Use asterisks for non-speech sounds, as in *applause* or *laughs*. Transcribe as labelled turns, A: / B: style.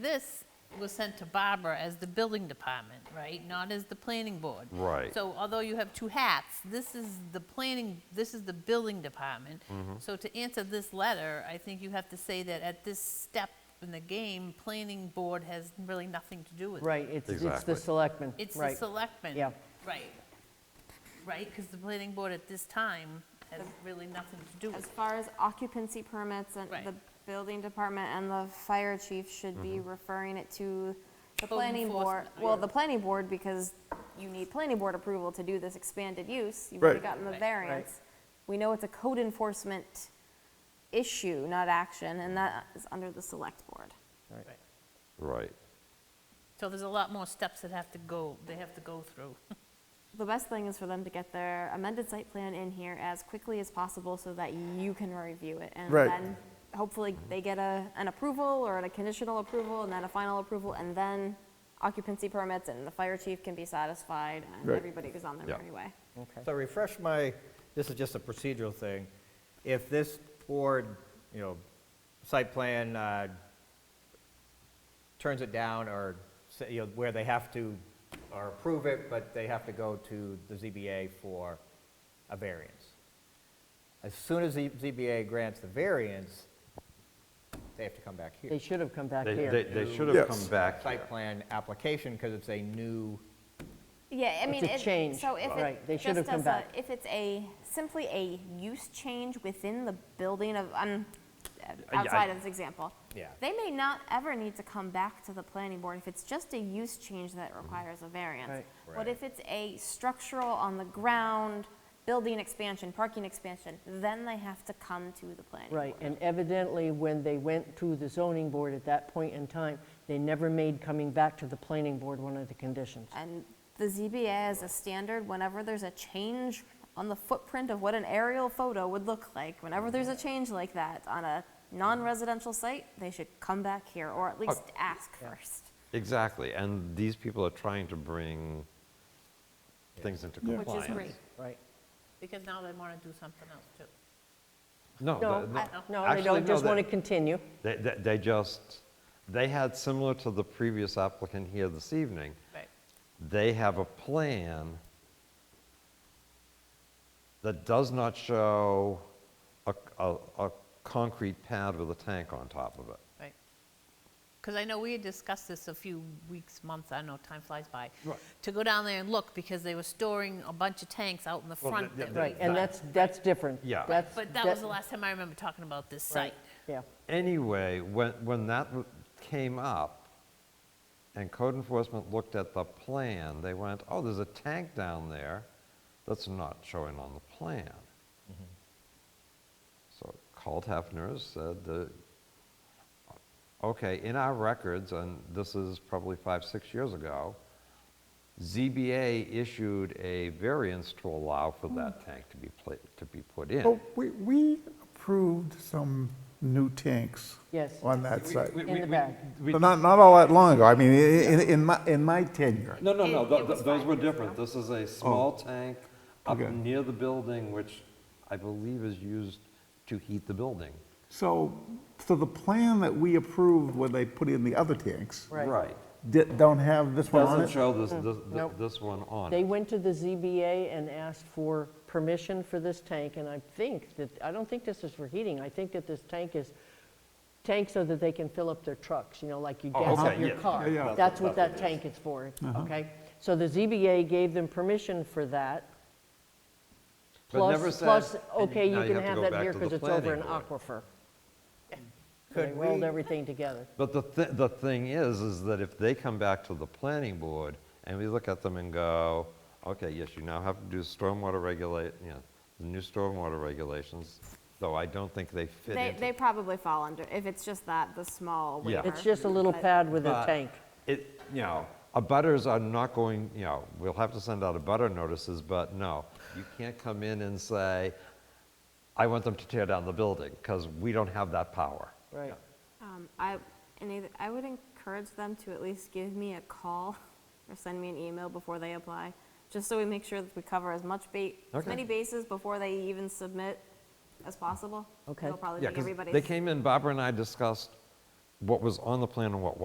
A: This was sent to Barbara as the building department, right? Not as the planning board.
B: Right.
A: So although you have two hats, this is the planning, this is the building department. So to answer this letter, I think you have to say that at this step in the game, planning board has really nothing to do with it.
C: Right, it's, it's
B: Exactly.
C: the selectmen,
A: It's the
C: right.
A: selectmen.
C: Yeah.
A: Right. Right, because the planning board at this time has really nothing to do
D: As
A: with it.
D: far as occupancy permits, and
A: Right.
D: the building department and the fire chief should be referring it to the
A: Code
D: planning board.
A: enforcement.
D: Well, the planning board, because you need planning board approval to do this expanded use. You've already
B: Right.
D: gotten the
A: Right.
D: variance. We know it's a code enforcement issue, not action, and that is under the select board.
A: Right.
B: Right.
A: So there's a lot more steps that have to go, they have to go through. *laughs*
D: The best thing is for them to get their amended site plan in here as quickly as possible so that you can review it. And
E: Right.
D: then hopefully they get a, an approval or a conditional approval and then a final approval and then occupancy permits and the fire chief can be satisfied and
E: Right.
D: everybody goes on their
B: Yeah.
D: merry way.
F: So refresh my, this is just a procedural thing. If this board, you know, site plan uh, turns it down or, say, you know, where they have to, or approve it, but they have to go to the ZBA for a variance. As soon as the ZBA grants the variance, they have to come back
C: They
F: here.
C: should have come back
B: They, they,
C: here.
B: they should have
E: Yes.
B: come back.
F: Site plan application, because it's a new,
D: Yeah, I mean,
C: a
D: it-
C: change,
D: so if
C: right, they
D: it
C: should have
D: just
C: come
D: as a,
C: back.
D: if it's a, simply a use change within the building of, um,
B: I-
D: outside of this example.
F: Yeah.
D: They may not ever need to come back to the planning board if it's just a use change that requires a variance.
C: Right.
F: Right.
D: But if it's a structural on the ground, building expansion, parking expansion, then they have to come to the planning board.
C: Right, and evidently, when they went to the zoning board at that point in time, they never made coming back to the planning board one of the conditions.
D: And the ZBA is a standard, whenever there's a change on the footprint of what an aerial photo would look like, whenever there's a change like that on a non-residential site, they should come back here, or at least ask first.
B: Exactly. And these people are trying to bring things into
E: Yeah.
A: Which
B: compliance.
A: is great,
C: Right.
A: because now they want to do something else too.
B: No,
C: No,
B: the-
C: I- no, they
B: actually,
C: don't, just
B: they-
C: want to continue.
B: They, they- they just, they had, similar to the previous applicant here this evening,
A: Right.
B: they have a plan that does not show a, a, a concrete pad with a tank on top of it.
A: Right. Because I know we had discussed this a few weeks, months, I don't know, time flies by. To go down there and look, because they were storing a bunch of tanks out in the
B: Well,
A: front.
B: the-
A: that
B: the-
A: we-
C: Right, and that's, that's different.
B: Yeah.
C: That's-
A: But that was the last time I remember talking about this
C: Right.
A: site.
C: Yeah,
B: Anyway, when, when that w- came up and code enforcement looked at the plan, they went, oh, there's a tank down there that's not showing on the plan. Mm-hmm. So called Hefner's, said that, okay, in our records, and this is probably five, six years ago, ZBA issued a variance to allow
C: Hmm.
B: for that tank to be, pla- to be put in.
E: Well, we, we approved some new tanks.
C: Yes.
E: On that site.
C: in the back.
B: We
E: But not, not all that long ago. I mean, i- in, in my, in my tenure.
B: No, no, no,
D: It-
B: tho-
D: it
B: tho-
D: was
B: those
D: five
B: were
D: years
B: different.
D: ago.
B: This is a small tank up
E: Oh. Okay.
B: near the building, which I believe is used to heat the building.
E: So, so the plan that we approved when they put in the other tanks
C: right. Hmm.
E: di- don't have this one on
B: Doesn't
E: it?
B: show this, this- th-
C: Nope.
B: this one on
C: They
B: it.
C: went to the ZBA and asked for permission for this tank, and I think that, I don't think this is for heating, I think that this tank is, tank so that they can fill up their trucks, you know, like you
B: Oh,
C: gas up
B: okay,
C: your
B: yeah,
C: car.
E: yeah, yeah.
C: That's what
B: That's
C: that
B: what it
C: tank is for, okay? So the ZBA gave them permission for that,
B: But never
C: plus,
B: said-
C: plus,
B: and
C: okay, you
B: now
C: can
B: have to
C: have
B: go
C: that
B: back
C: here
B: to
C: because
B: the
C: it's over an
B: planning board.
C: aquifer.
F: Could
C: They rolled
F: we-
C: everything together.
B: But the, thi- the thing is, is that if they come back to the planning board and we look at them and go, okay, yes, you now have to do stormwater regulate, you know, the new stormwater regulations, though I don't think they fit
D: They,
B: into.
D: they probably fall under, if it's just that, the small
B: Yeah.
D: waiver.
C: It's just a little
D: But-
C: pad with a
B: But
C: tank.
B: It, you know, abutters are not going, you know, we'll have to send out abutter notices, but no, you can't come in and say, I want them to tear down the building, because we don't have that power.
C: Right.
D: Um, I, and either- I would encourage them to at least give me a call *laughs* or send me an email before they apply, just so we make sure that we cover as much ba, as
B: Okay.
D: many bases before they even submit as possible.
C: Okay.
D: It'll probably
B: Yeah,
D: make
B: 'cause
D: everybody's.
B: they came in, Barbara and I discussed what was on the plan and what